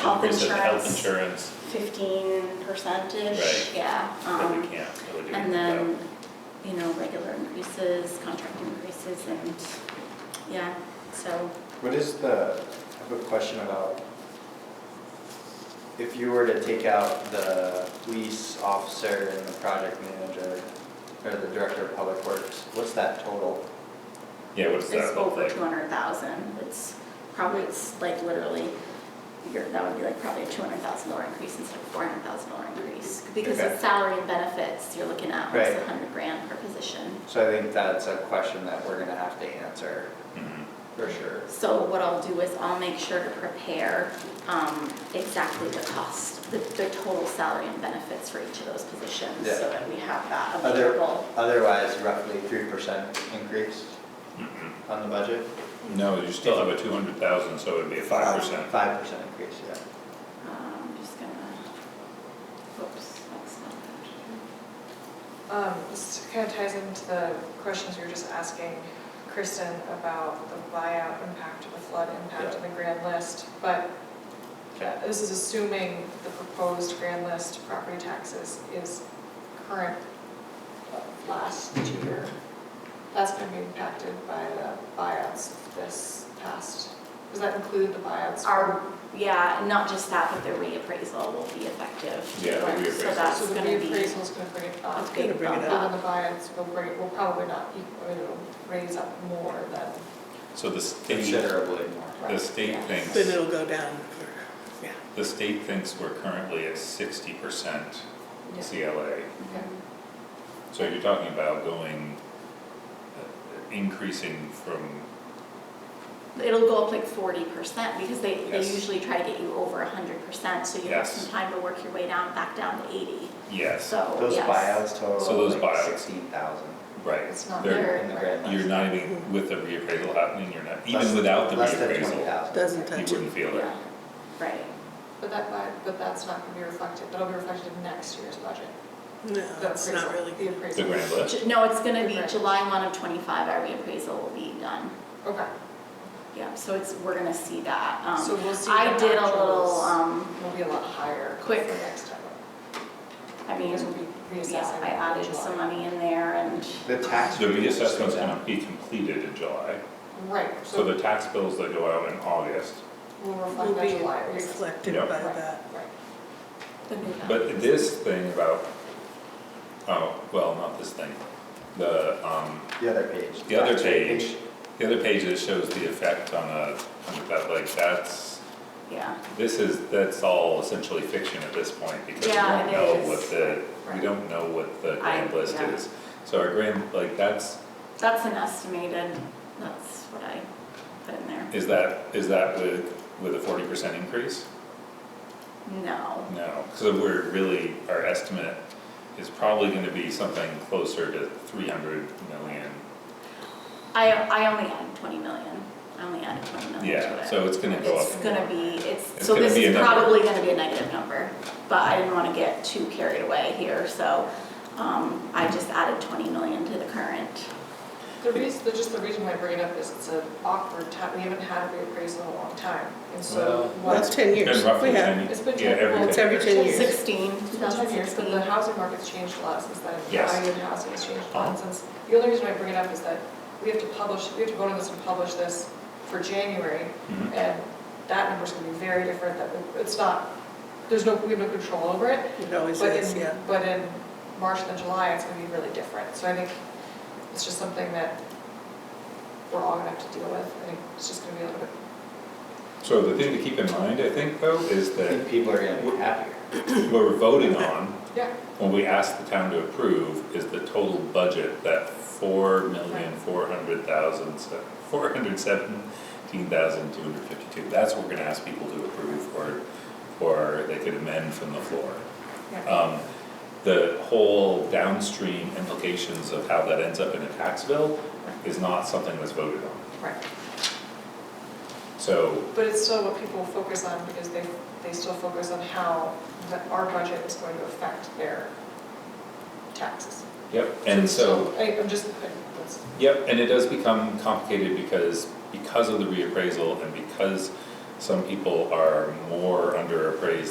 health increase of the health insurance. insurance, fifteen percent-ish, Right. yeah. that we um, can't really do. And anything then, you know, regular increases, contract increases, and, yeah, so, What is the, I have a question about, if you were to take out the police officer and the project manager, or the director of public works, what's that total? about. Yeah, what does it's that look over like? two hundred thousand, it's probably, it's like literally, you're, that would be like probably a two hundred thousand dollar increase instead of four hundred thousand dollar increase. Because Okay. of salary and benefits, you're looking at almost a Right. hundred grand per position. So I think that's a question that we're gonna have to answer, Mhm. for sure. So what I'll do is I'll make sure to prepare um, exactly the cost, the the total salary and benefits for each of those positions, Yeah. so that we have that Other- available. Otherwise, roughly three percent increase mm-hmm. on the budget, No, you still have a two hundred thousand, so it'd be a five percent. five percent increase, yeah. Um, I'm just gonna, whoops, that's not that. Um, This kind of ties into the questions you were just asking Kristen about the buyout impact, the flood impact, and the grand list. But Okay. this is assuming the proposed grand list property taxes is current uh, last year. That's going to be impacted by the buyouts this past, does that include the buyouts? Our, yeah, not just that, but the reappraisal will be effective. Yeah, the So reappraisal. that's So the gonna be. reappraisal's going to bring it up. It's gonna bring it Even up. the buyouts will bring, will probably not equal, it'll raise up more than So the state, Considerably more. the state Yeah. Then thinks, it'll go down for, yeah. the state thinks we're currently at sixty percent Yeah. CLA. Okay. So you're talking about going, uh, increasing from, It'll go up like forty percent because they, they Yes. usually try to get you over a hundred percent, so you have Yes. some time to work your way down, back down to eighty, yes, so, yes. Those buyouts So total those like buyouts. sixteen thousand right. It's not They're- They're- in the grand list. You're not even, with the reappraisal happening, you're not, even Less- without the Less than twenty reappraisal, thousand. Doesn't you touch wouldn't it. feel it. Yeah, right. But that, might- but that's not gonna be reflected, that'll be reflected in next year's budget. No, The it's not appraisal- really The good. The appraisal. grand list, Ju- No, it's gonna be Right. July one of twenty-five, our reappraisal will be done. Okay, Yeah, so it's, we're gonna see that. Um, So we'll see I the did a little, actuals. um, will be a lot higher for Quick. next time. I mean, Because we'll be yeah, reassessing I in added some July. money in there and, The tax. the rate is reassessment's down. gonna be completed in July, Right, so so the tax bills that go out in August. we'll reflect Will that be July reassessment. reflected Yeah. by Right, that. Right, the new balance. But this thing about, oh, well, not this thing, the, um, The other page. the other tax rate page, the other page that shows the effect on a, on that, like, that's, Yeah, this is, that's all essentially fiction at this point, because we Yeah, don't it know is. what the, we Right. don't know what the grand I- list yeah. is. So our grand, like, that's, that's an estimated, that's what I put in there. is that, is that with, with a forty percent increase? No, No, so we're really, our estimate is probably gonna be something closer to three hundred million. I, I only added twenty million. I only added twenty million to it. Yeah, so it's gonna go up. It's gonna be, it's, It's so gonna this be a is number. probably gonna be a negative number, but I didn't wanna get too carried away here, so, um, I just added twenty million to the current. the reason, the- just the reason why I bring it up is it's an awkward time, we haven't had a reappraisal in a long time, and so. Well, what- That's ten It's years. been roughly We have- ten, It's been yeah, ten- every It's ten every years. ten years. Sixteen, It's two been thousand ten years, but sixteen. the housing market's changed a lot since then. The Yes. Value of housing has changed a Uh-huh. lot since, the only reason I bring it up is that we have to publish, we have to vote on this and publish this for January. Mhm. And that number's gonna be very different, that, we- it's not, there's no, we have no control over it. It always But is, in, yeah. but in March and July, it's gonna be really different. So I think it's just something that we're all gonna have to deal with. I think it's just gonna be a little bit, So the thing to keep in mind, I think, though, is I think that people are gonna be happier. what we're voting on, yeah, when we ask the town to approve, is the total budget, that four million, four hundred thousand, four hundred seventeen thousand, two hundred fifty-two. That's what we're gonna ask people to approve, or, or they could amend from the floor. yeah. Um, the whole downstream implications of how that ends up in a tax bill is not something that's voted on. Right. So But it's still what people focus on because they, they still focus on how the- our budget is going to affect their taxes. Yep, and it's so, still- I, I'm just, I- that's, yep, and it does become complicated because, because of the reappraisal and because some people are more underappraised